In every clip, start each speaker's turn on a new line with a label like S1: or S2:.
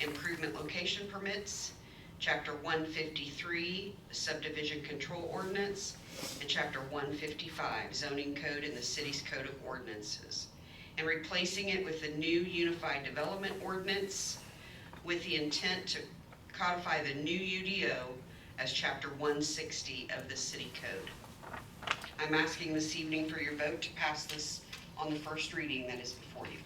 S1: improvement location permits, chapter one fifty-three subdivision control ordinance, and chapter one fifty-five zoning code and the city's code of ordinances, and replacing it with the new unified development ordinance with the intent to codify the new UDO as chapter one sixty of the city code. I'm asking this evening for your vote to pass this on the first reading that is before you.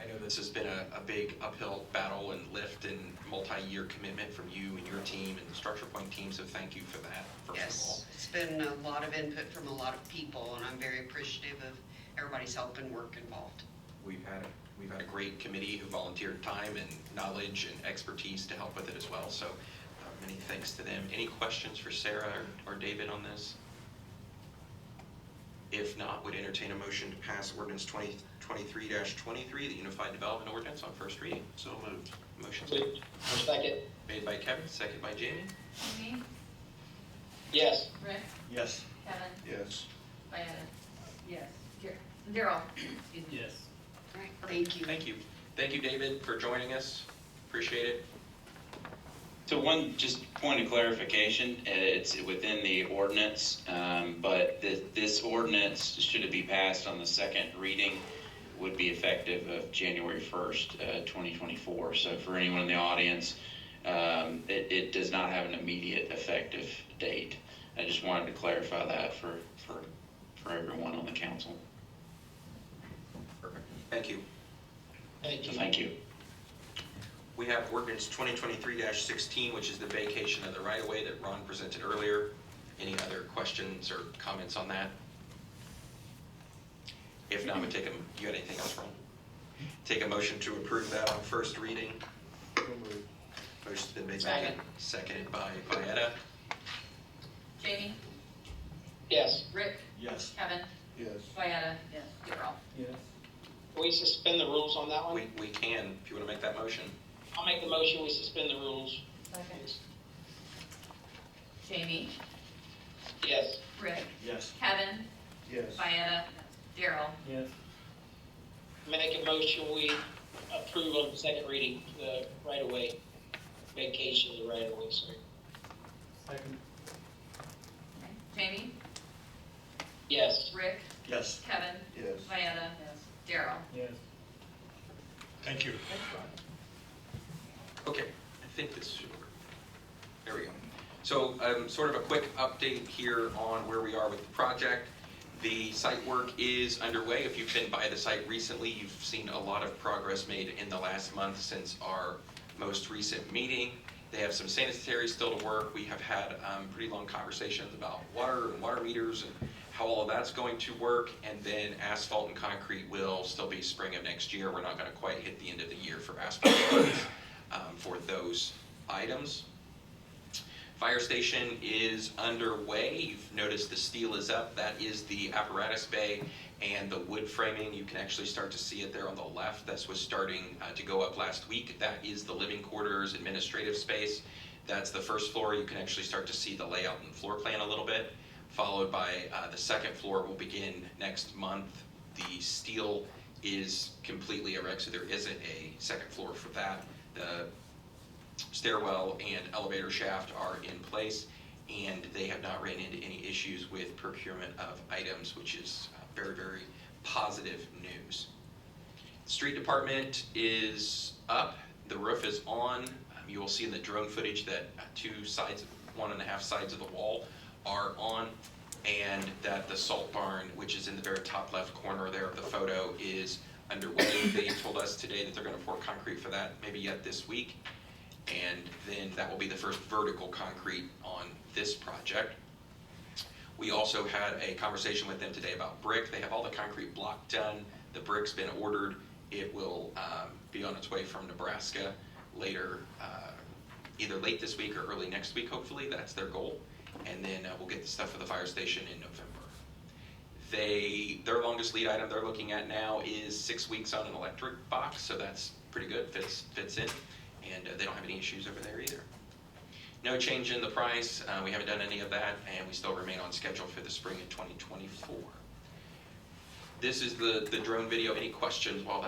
S2: I know this has been a, a big uphill battle and lift and multi-year commitment from you and your team and the Structure Point team, so thank you for that, first of all.
S1: Yes, it's been a lot of input from a lot of people, and I'm very appreciative of everybody's help and work involved.
S2: We've had, we've had a great committee who volunteered time and knowledge and expertise to help with it as well, so uh, many thanks to them. Any questions for Sarah or- or David on this? If not, would entertain a motion to pass ordinance 2023 twenty-three, the Unified Development Ordinance on first reading. So moved. Motion's
S3: I'll second.
S2: made by Kevin, second by Jamie.
S4: Amy,
S3: Yes.
S4: Rick,
S5: Yes.
S4: Kevin,
S5: Yes.
S4: Diana. Yes. Daryl. Excuse me.
S5: Yes.
S1: All right, thank you.
S2: Thank you. Thank you, David, for joining us. Appreciate it.
S6: So one, just point of clarification, uh, it's within the ordinance, um, but thi- this ordinance, should it be passed on the second reading, would be effective of January 1st, uh, 2024. So for anyone in the audience, um, it it does not have an immediate effective date. I just wanted to clarify that for for for everyone on the council.
S2: Perfect. Thank you.
S3: Thank
S6: So
S3: you.
S6: thank you.
S2: We have ordinance 2023-16, which is the vacation of the right-of-way that Ron presented earlier. Any other questions or comments on that? If not, we take a, you got anything else, Ron? Take a motion to approve that on first reading. Motion's been made by Kevin,
S3: Second.
S2: seconded by Vieta.
S4: Jamie,
S3: Yes.
S4: Rick,
S5: Yes.
S4: Kevin,
S5: Yes.
S4: Diana. Yes. Daryl.
S5: Yes.
S3: Can we suspend the rules on that one?
S2: We, we can, if you want to make that motion.
S3: I'll make the motion, we suspend the rules.
S4: Jamie,
S3: Yes.
S4: Rick,
S5: Yes.
S4: Kevin,
S5: Yes.
S4: Diana, Daryl.
S5: Yes.
S3: Make a motion, we approve on the second reading, the right-of-way, vacation of the right-of-way, sorry.
S5: Second.
S4: Jamie,
S3: Yes.
S4: Rick,
S5: Yes.
S4: Kevin,
S5: Yes.
S4: Diana. Yes. Daryl.
S5: Yes.
S7: Thank you.
S2: Okay, I think this should work. There we go. So um, sort of a quick update here on where we are with the project. The site work is underway. If you've been by the site recently, you've seen a lot of progress made in the last month since our most recent meeting. They have some sanitary still to work. We have had um, pretty long conversations about water and water meters and how all of that's going to work. And then asphalt and concrete will still be spring of next year. We're not going to quite hit the end of the year for asphalt um, for those items. Fire station is underway. You've noticed the steel is up. That is the apparatus bay and the wood framing. You can actually start to see it there on the left. That's was starting uh, to go up last week. That is the living quarters administrative space. That's the first floor. You can actually start to see the layout and floor plan a little bit. Followed by uh, the second floor will begin next month. The steel is completely erect, so there isn't a second floor for that. The stairwell and elevator shaft are in place, and they have not ran into any issues with procurement of items, which is uh, very, very positive news. Street department is up, the roof is on. Um, You will see in the drone footage that uh, two sides, one and a half sides of the wall are on, and that the salt barn, which is in the very top left corner there of the photo, is underway. They told us today that they're gonna pour concrete for that, maybe yet this week. And then that will be the first vertical concrete on this project. We also had a conversation with them today about brick. They have all the concrete block done. The brick's been ordered. It will um, be on its way from Nebraska later, uh, either late this week or early next week, hopefully. That's their goal. And then uh, we'll get the stuff for the fire station in November. They, their longest lead item they're looking at now is six weeks on an electric box, so that's pretty good, fits, fits in. And uh, they don't have any issues over there either. No change in the price, uh, we haven't done any of that, and we still remain on schedule for the spring of 2024. This is the, the drone video, any questions while that's